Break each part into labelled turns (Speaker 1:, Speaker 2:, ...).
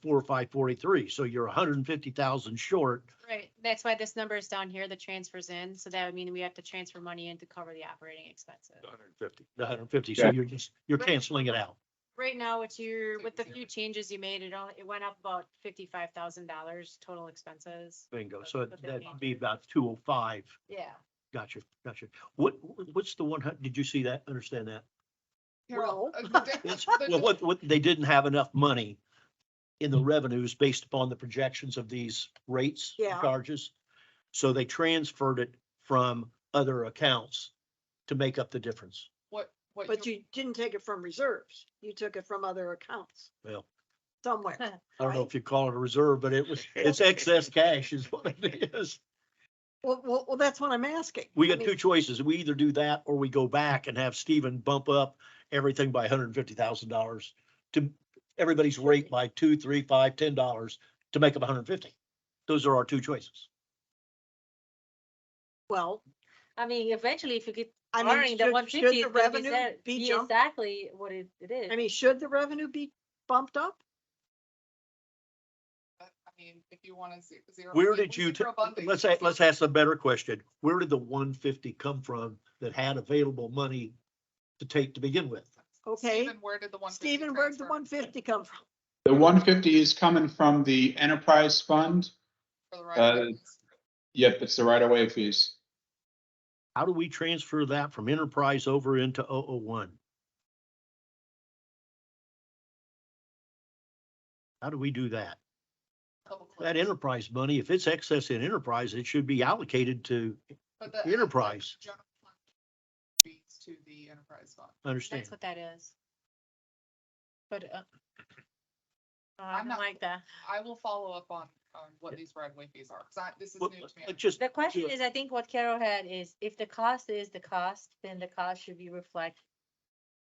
Speaker 1: four, five, forty-three. So you're hundred and fifty thousand short.
Speaker 2: Right, that's why this number is down here, the transfers in, so that would mean we have to transfer money in to cover the operating expenses.
Speaker 3: hundred and fifty.
Speaker 1: The hundred and fifty, so
Speaker 4: Yeah.
Speaker 1: you're just, you're
Speaker 2: Right.
Speaker 1: canceling it out.
Speaker 2: Right now, what you're, with the few changes you made, it only, it went up about fifty-five thousand dollars total expenses.
Speaker 1: Bingo. So
Speaker 2: But they're
Speaker 1: that'd
Speaker 2: not.
Speaker 1: be about two oh five.
Speaker 2: Yeah.
Speaker 1: Gotcha, gotcha. What, what's the one hun- did you see that? Understand that?
Speaker 5: Well, uh,
Speaker 6: Well,
Speaker 1: It's- Well, what, what, they didn't have enough money in the revenues based upon the projections of these rates, and
Speaker 6: Yeah.
Speaker 1: charges. So they transferred it from other accounts to make up the difference.
Speaker 5: what,
Speaker 6: But
Speaker 5: what you,
Speaker 6: you didn't take it from reserves. You took it from other accounts
Speaker 1: Well,
Speaker 6: somewhere.
Speaker 1: I don't know if you call it a reserve, but it was, it's excess cash is what it is.
Speaker 6: Well, well, well, that's what I'm asking.
Speaker 1: We
Speaker 6: I
Speaker 1: got
Speaker 6: mean,
Speaker 1: two choices. We either do that or we go back and have Steven bump up everything by hundred and fifty thousand dollars to everybody's rate by two, three, five, ten dollars to make up $150. Those are our two choices.
Speaker 6: Well,
Speaker 7: I mean, eventually, if you get
Speaker 6: I
Speaker 7: barring
Speaker 6: mean,
Speaker 7: the one
Speaker 6: should, should
Speaker 7: fifty,
Speaker 6: the
Speaker 7: it's gonna be
Speaker 6: revenue
Speaker 7: set-
Speaker 6: be
Speaker 7: be
Speaker 6: jumped?
Speaker 7: exactly what it, it is.
Speaker 6: I mean, should the revenue be bumped up?
Speaker 5: I mean, if you want to zero.
Speaker 1: Where
Speaker 5: we-
Speaker 1: did
Speaker 5: we
Speaker 1: you, ta-
Speaker 5: zero funding,
Speaker 1: let's,
Speaker 5: so
Speaker 1: a- let's ask a better question. Where did the one fifty come from that had available money to take to begin with?
Speaker 6: Okay.
Speaker 5: Stephen, where did the one?
Speaker 6: Stephen, where'd the one fifty come from?
Speaker 4: The one fifty is coming from the enterprise fund. uh, Yep, it's the right of way fees.
Speaker 1: How do we transfer that from enterprise over into 001? How do we do that? That enterprise money, if it's excess in enterprise, it should be allocated to enterprise.
Speaker 5: Fees to the enterprise fund.
Speaker 1: understand.
Speaker 2: That's what that is. But, uh. oh, I
Speaker 5: I'm
Speaker 2: don't
Speaker 5: not-
Speaker 2: like that.
Speaker 5: I will follow up on, on what these right of way fees are, because I, this is new
Speaker 1: Well,
Speaker 5: to
Speaker 1: uh,
Speaker 5: me.
Speaker 1: Just,
Speaker 7: The question
Speaker 1: Yeah.
Speaker 7: is, I think what Carol had is, if the cost is the cost, then the cost should be reflected.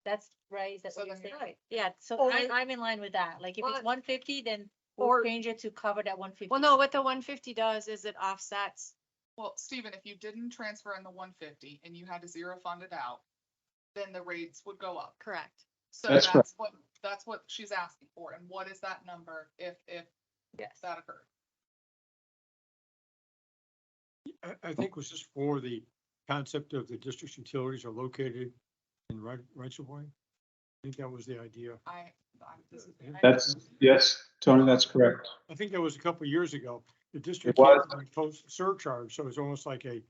Speaker 7: That's right, is that
Speaker 5: So
Speaker 7: what you're
Speaker 5: then
Speaker 7: saying?
Speaker 5: you're
Speaker 6: Right.
Speaker 7: Yeah, so
Speaker 6: Or-
Speaker 7: I, I'm in line with that, like, if
Speaker 2: Well,
Speaker 7: it's one fifty, then
Speaker 6: or-
Speaker 7: we'll change it to cover that one fifty.
Speaker 2: Well, no, what the one fifty does is it offsets,
Speaker 5: Well, Stephen, if you didn't transfer in the one fifty and you had to zero fund it out, then the rates would go up.
Speaker 2: correct.
Speaker 5: So
Speaker 4: That's
Speaker 5: that's what, that's what she's asking for, and what is that number if, if
Speaker 7: Yes.
Speaker 5: that occurred?
Speaker 8: I, I think was just for the concept of the district's utilities are located in right, rights of way. I think that was the idea.
Speaker 5: I, I- this is-
Speaker 8: Yeah.
Speaker 4: That's, yes, Tony, that's correct.
Speaker 8: I think that was a couple of years ago. The district
Speaker 4: was.
Speaker 8: imposed surcharge, so it's almost like a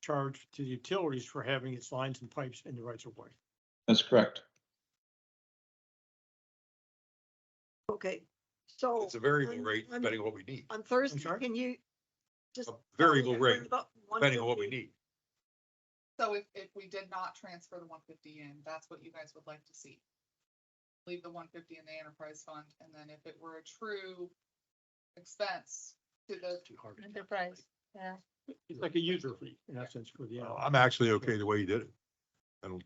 Speaker 8: charge to the utilities for having its lines and pipes in the rights of way.
Speaker 4: That's correct.
Speaker 6: Okay, so
Speaker 3: It's a variable
Speaker 6: I'm-
Speaker 3: rate
Speaker 6: I'm-
Speaker 3: depending on what we need,
Speaker 6: on Thursday,
Speaker 8: sorry?
Speaker 6: can you just?
Speaker 3: a
Speaker 6: tell
Speaker 3: variable
Speaker 6: me
Speaker 3: rate
Speaker 6: about
Speaker 3: depending on what we
Speaker 6: 150?
Speaker 3: need.
Speaker 5: So if, if we did not transfer the one fifty in, that's what you guys would like to see. Leave the one fifty in the enterprise fund, and then if it were a true expense to the,
Speaker 1: too hard to
Speaker 7: Enterprise, yeah.
Speaker 8: It's like a user fee in essence for the.
Speaker 3: Well, Uh, I'm actually okay the way you did it. I don't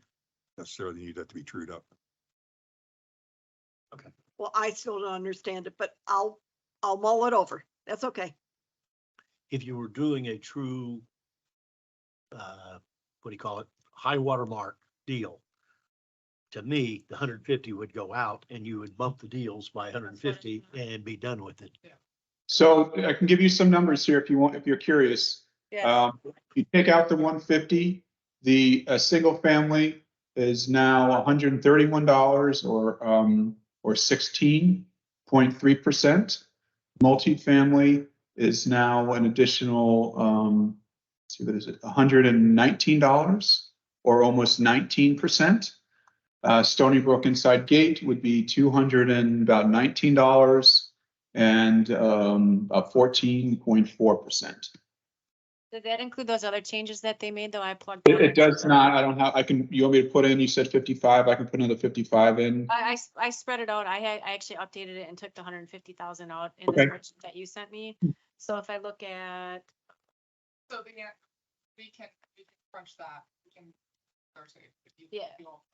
Speaker 3: necessarily need that to be trued up.
Speaker 6: Well, I still don't understand it, but I'll, I'll mull it over. That's okay.
Speaker 1: if you were doing a true, uh, what do you call it, high water mark deal, to me, the hundred and fifty would go out and you would bump the deals by hundred and fifty and be done with it.
Speaker 4: So I can give you some numbers here if you want, if you're curious.
Speaker 7: Yeah,
Speaker 4: Um, if you take out the one fifty, the, uh single family is now hundred and thirty-one dollars or, um, or sixteen point three percent. Multifamily is now an additional, um, let's see, what is it, hundred and nineteen dollars or almost nineteen percent. Uh, Stony Brook Inside Gate would be two hundred and about nineteen dollars and, um, about fourteen point four percent.
Speaker 2: Did that include those other changes that they made, though I plugged?
Speaker 4: It,
Speaker 2: them
Speaker 4: it
Speaker 2: in.
Speaker 4: does not, I don't have, I can, you want me to put in, you said fifty-five, I can put another fifty-five in.
Speaker 2: I, I s- I spread it out. I had, I actually updated it and took the hundred and fifty thousand out in the
Speaker 4: Okay. Hmm.
Speaker 2: spreadsheet that you sent me. So if I look at,
Speaker 5: so the, an- we can, we can crunch that, we can. Thursday, if you- if
Speaker 2: Yeah.
Speaker 5: you all-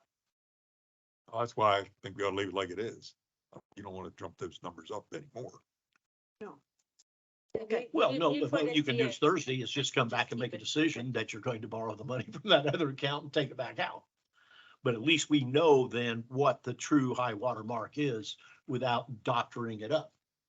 Speaker 3: That's why I think we ought to leave it like it is. You don't want to jump those numbers up anymore.
Speaker 6: Okay.
Speaker 1: Well, no,
Speaker 7: you
Speaker 1: the vote you can do
Speaker 7: thirty.
Speaker 1: Thursday is just come back and make a decision that you're going to borrow the money from that other account and take it back out. But at least we know then what the true high water mark is without doctoring it up.